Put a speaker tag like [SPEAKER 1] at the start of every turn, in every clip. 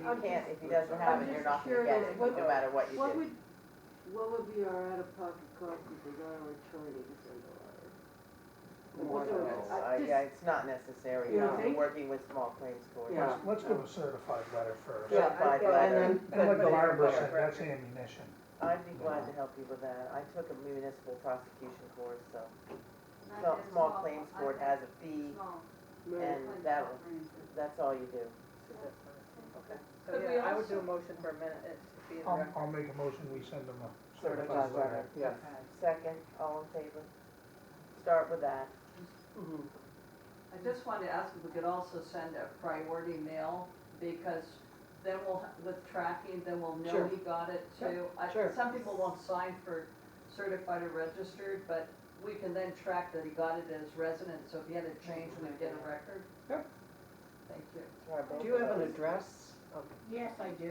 [SPEAKER 1] you can't, if he doesn't have it, you're not gonna get it, no matter what you
[SPEAKER 2] What
[SPEAKER 1] do.
[SPEAKER 2] would, what would be our out-of-pocket cost if we got our attorney to send a letter?
[SPEAKER 1] More than this,
[SPEAKER 2] I
[SPEAKER 1] Uh,
[SPEAKER 2] just-
[SPEAKER 1] yeah, it's not necessary,
[SPEAKER 2] You
[SPEAKER 1] no,
[SPEAKER 2] don't
[SPEAKER 1] we're
[SPEAKER 2] think?
[SPEAKER 1] working with small claims court.
[SPEAKER 2] Yeah.
[SPEAKER 3] Let's give a certified letter first.
[SPEAKER 1] Yeah, I-
[SPEAKER 4] Yeah, and
[SPEAKER 1] and
[SPEAKER 4] then-
[SPEAKER 3] And
[SPEAKER 4] but-
[SPEAKER 3] let the
[SPEAKER 4] but-
[SPEAKER 3] harbor said, that's ammunition.
[SPEAKER 1] I'd be glad to help you with that, I took a municipal prosecution course, so,
[SPEAKER 5] Not
[SPEAKER 1] so,
[SPEAKER 5] that
[SPEAKER 1] small claims court
[SPEAKER 5] I
[SPEAKER 1] has a
[SPEAKER 5] think
[SPEAKER 1] fee,
[SPEAKER 5] small.
[SPEAKER 1] and
[SPEAKER 5] Like
[SPEAKER 1] that,
[SPEAKER 5] small
[SPEAKER 1] was-
[SPEAKER 5] claims court.
[SPEAKER 1] that's all you do.
[SPEAKER 4] Okay, so
[SPEAKER 6] Could we
[SPEAKER 4] yeah, I would do a
[SPEAKER 6] also-
[SPEAKER 4] motion for a minute, it's to be in
[SPEAKER 3] I'll,
[SPEAKER 4] record.
[SPEAKER 3] I'll make a motion, we send them a
[SPEAKER 1] Certified
[SPEAKER 3] certified letter.
[SPEAKER 1] letter. Second, all in favor? Start with that.
[SPEAKER 6] I just wanted to ask if we could also send a priority mail, because then we'll, with tracking, then we'll know
[SPEAKER 4] Sure.
[SPEAKER 6] he got it too. I-
[SPEAKER 4] Sure.
[SPEAKER 6] Some people won't sign for certified or registered, but we can then track that he got it as resident, so if he had a change, we get a record.
[SPEAKER 4] Sure.
[SPEAKER 6] Thank you.
[SPEAKER 1] Try both
[SPEAKER 4] Do you
[SPEAKER 1] of
[SPEAKER 4] have an
[SPEAKER 1] those.
[SPEAKER 4] address? of-
[SPEAKER 7] Yes, I do.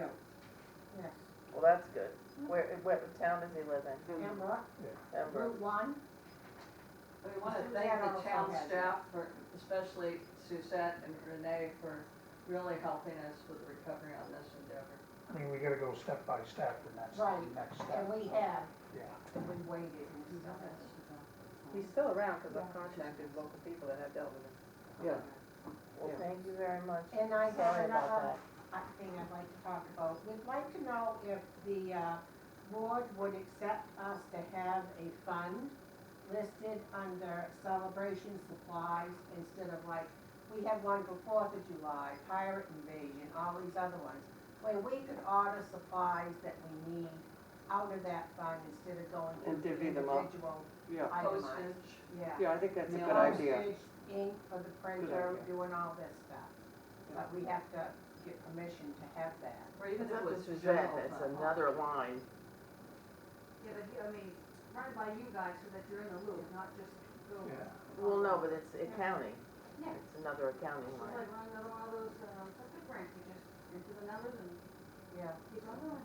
[SPEAKER 7] Yes.
[SPEAKER 1] Well, that's good. Where, what town does he live in?
[SPEAKER 7] Remember,
[SPEAKER 1] Pembroke?
[SPEAKER 7] Route one,
[SPEAKER 6] We want to
[SPEAKER 7] We
[SPEAKER 6] thank
[SPEAKER 7] have
[SPEAKER 6] the
[SPEAKER 7] all
[SPEAKER 6] town
[SPEAKER 7] had it.
[SPEAKER 6] staff for, especially Suzette and Renee for really helping us with the recovery on this endeavor.
[SPEAKER 3] I mean, we gotta go step by step, and that's
[SPEAKER 7] Right.
[SPEAKER 3] the next
[SPEAKER 7] and
[SPEAKER 3] step.
[SPEAKER 7] we have,
[SPEAKER 3] Yeah.
[SPEAKER 6] And we waited and still has to go.
[SPEAKER 4] He's still around, because I've contacted local people that have dealt with him.
[SPEAKER 2] Yeah.
[SPEAKER 1] Well,
[SPEAKER 4] Yeah.
[SPEAKER 1] thank you very much.
[SPEAKER 7] and I have
[SPEAKER 1] Sorry about
[SPEAKER 7] another
[SPEAKER 1] that.
[SPEAKER 7] uh, thing I'd like to talk about. We'd like to know if the uh, board would accept us to have a fund listed under celebration supplies instead of like, we have one for Fourth of July, pirate invasion, all these other ones. Where we could order supplies that we need out of that fund instead of going
[SPEAKER 2] And
[SPEAKER 7] to
[SPEAKER 2] divvy them up.
[SPEAKER 7] individual
[SPEAKER 2] Yeah,
[SPEAKER 7] itemized.
[SPEAKER 6] Postage.
[SPEAKER 7] Yeah.
[SPEAKER 2] yeah, I think that's a
[SPEAKER 6] Yeah.
[SPEAKER 2] good idea.
[SPEAKER 7] Postage, ink for the printer,
[SPEAKER 2] idea.
[SPEAKER 7] doing all this stuff. But we have to get permission to have that.
[SPEAKER 6] Or even if it was
[SPEAKER 1] This is
[SPEAKER 6] general
[SPEAKER 1] it. It's
[SPEAKER 6] fund.
[SPEAKER 1] another line.
[SPEAKER 5] Yeah, but, I mean, run by you guys so that you're in the loop, not just go.
[SPEAKER 3] Yeah.
[SPEAKER 1] Well, no, but it's accounting.
[SPEAKER 5] Yeah.
[SPEAKER 1] It's another accounting
[SPEAKER 5] It's just
[SPEAKER 1] line.
[SPEAKER 5] like running another one of those, um, subject branch, you just enter the numbers and
[SPEAKER 7] Yeah.
[SPEAKER 5] keep on going.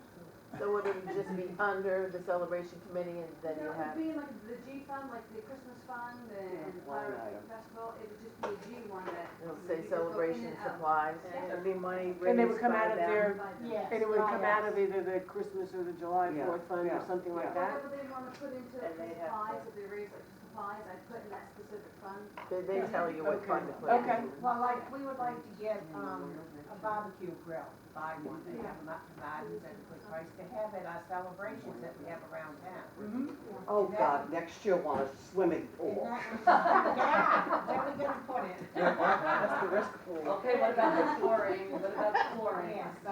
[SPEAKER 1] So would it just be under the celebration committee and then you
[SPEAKER 5] No,
[SPEAKER 1] have,
[SPEAKER 5] It would be like the G fund, like the Christmas fund and
[SPEAKER 2] Yeah, line
[SPEAKER 5] Pirate
[SPEAKER 2] item.
[SPEAKER 5] Festival, it would just be a G one that.
[SPEAKER 1] it'll
[SPEAKER 5] you
[SPEAKER 1] say
[SPEAKER 5] could go in
[SPEAKER 1] celebration
[SPEAKER 5] and out.
[SPEAKER 1] supplies?
[SPEAKER 5] Yeah.
[SPEAKER 4] It'd be money raised by
[SPEAKER 8] And they would come out of
[SPEAKER 4] them.
[SPEAKER 8] their,
[SPEAKER 5] By the-
[SPEAKER 7] Yes.
[SPEAKER 8] and it would
[SPEAKER 7] oh,
[SPEAKER 8] come out
[SPEAKER 7] yes.
[SPEAKER 8] of either the Christmas or the July
[SPEAKER 2] Yeah,
[SPEAKER 8] Fourth Fund or
[SPEAKER 2] yeah,
[SPEAKER 8] something
[SPEAKER 2] yeah.
[SPEAKER 8] like that.
[SPEAKER 5] Whatever they wanna put into
[SPEAKER 4] And they have
[SPEAKER 5] supplies,
[SPEAKER 4] to-
[SPEAKER 5] if they raise like supplies, I put in that specific fund.
[SPEAKER 1] They, they tell you what
[SPEAKER 4] Okay.
[SPEAKER 1] fund to put in.
[SPEAKER 8] Okay.
[SPEAKER 7] Well, like, we would like to get, um, a barbecue grill, buy one, they have them up to Martin's at a good price, to have at our celebrations that we have around town.
[SPEAKER 8] Mm-hmm.
[SPEAKER 2] Oh, God, next year want a swimming
[SPEAKER 7] And
[SPEAKER 2] pool.
[SPEAKER 7] that would- Yeah, where we gonna put it?
[SPEAKER 2] That's the risk pool.
[SPEAKER 6] Okay, what about the flooring? What about the flooring?
[SPEAKER 7] Yeah, so,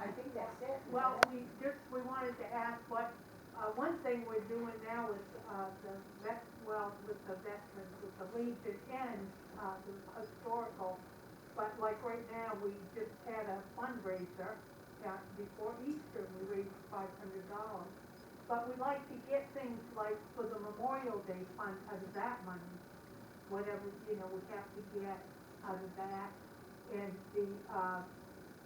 [SPEAKER 7] I think that's it.
[SPEAKER 9] Well, we just, we wanted to ask what, uh, one thing we're doing now is, uh, the vet, well, with the veterans, with the Legion and, uh, the historical. But like right now, we just had a fundraiser, uh, before Easter, we raised five hundred dollars. But we like to get things like for the Memorial Day fund out of that money, whatever, you know, we have to get out of that. And the, uh,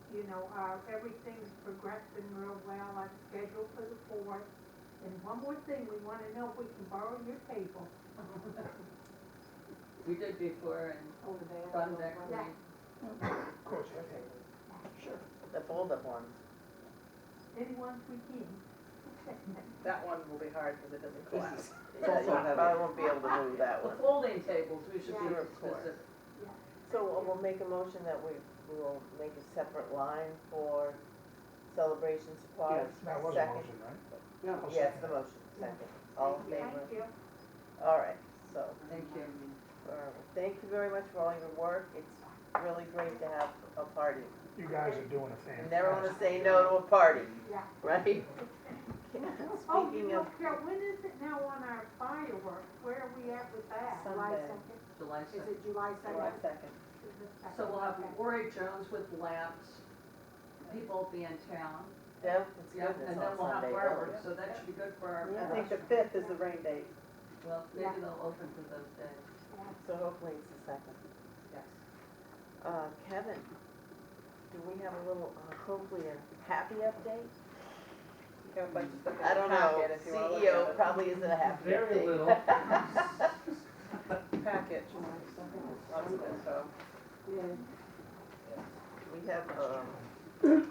[SPEAKER 9] you know, our, everything's progressing real well, I'm scheduled for the fourth. And one more thing, we wanna know if we can borrow your table
[SPEAKER 6] We did before and
[SPEAKER 9] over there.
[SPEAKER 6] done that.
[SPEAKER 9] Yeah.
[SPEAKER 3] Of course, okay.
[SPEAKER 1] The fold-up ones.
[SPEAKER 9] Any ones we can.
[SPEAKER 4] That one will be hard because it doesn't collapse.
[SPEAKER 1] Yeah,
[SPEAKER 2] also
[SPEAKER 1] you
[SPEAKER 2] heavy.
[SPEAKER 1] probably won't be able to move that
[SPEAKER 6] The
[SPEAKER 1] one.
[SPEAKER 6] folding tables, we should be
[SPEAKER 1] Yeah. Of course.
[SPEAKER 6] specific.
[SPEAKER 1] So uh, we'll make a motion that we, we will make a separate line for celebration supplies.
[SPEAKER 2] Yes,
[SPEAKER 3] That was a
[SPEAKER 1] Second.
[SPEAKER 3] motion, right?
[SPEAKER 2] Yeah.
[SPEAKER 3] I'll
[SPEAKER 1] Yes,
[SPEAKER 3] second
[SPEAKER 1] the
[SPEAKER 3] it.
[SPEAKER 1] motion, second. All in favor?
[SPEAKER 9] Thank you.
[SPEAKER 1] All right, so,
[SPEAKER 6] Thank you.
[SPEAKER 1] uh, thank you very much for all your work. It's really great to have a party.
[SPEAKER 3] You guys are doing a
[SPEAKER 1] You
[SPEAKER 3] fantastic.
[SPEAKER 1] never wanna say no to a party,
[SPEAKER 9] Yeah.
[SPEAKER 1] right?
[SPEAKER 9] Oh, you
[SPEAKER 1] Speaking
[SPEAKER 9] know,
[SPEAKER 1] of,
[SPEAKER 9] Carol, when is it now on our fireworks? Where are we at with that?
[SPEAKER 7] July
[SPEAKER 4] Sunday.
[SPEAKER 7] second,
[SPEAKER 6] July
[SPEAKER 7] is
[SPEAKER 6] 6th.
[SPEAKER 7] it July
[SPEAKER 4] July
[SPEAKER 7] second?
[SPEAKER 4] second.
[SPEAKER 6] So we'll have Rory Jones with lamps, people will be in town.
[SPEAKER 1] Deb, it's
[SPEAKER 6] Yeah,
[SPEAKER 1] goodness
[SPEAKER 6] And then
[SPEAKER 1] on
[SPEAKER 6] we'll have
[SPEAKER 1] Sunday.
[SPEAKER 6] fireworks, so that should be good for our,
[SPEAKER 4] I think the fifth is the rain date.
[SPEAKER 6] well, maybe
[SPEAKER 9] Yeah.
[SPEAKER 6] they'll open for those days.
[SPEAKER 1] So hopefully it's the second.
[SPEAKER 6] Yes.
[SPEAKER 1] Uh, Kevin, do we have a little, uh, hopefully a happy update?
[SPEAKER 4] You have a bunch of stuff in
[SPEAKER 1] I
[SPEAKER 4] your
[SPEAKER 1] don't know, E
[SPEAKER 4] packet if you wanna look at
[SPEAKER 1] CEO
[SPEAKER 4] it.
[SPEAKER 1] probably isn't a happy update.
[SPEAKER 10] Very little.
[SPEAKER 4] Package, lots of info.
[SPEAKER 1] We have, um,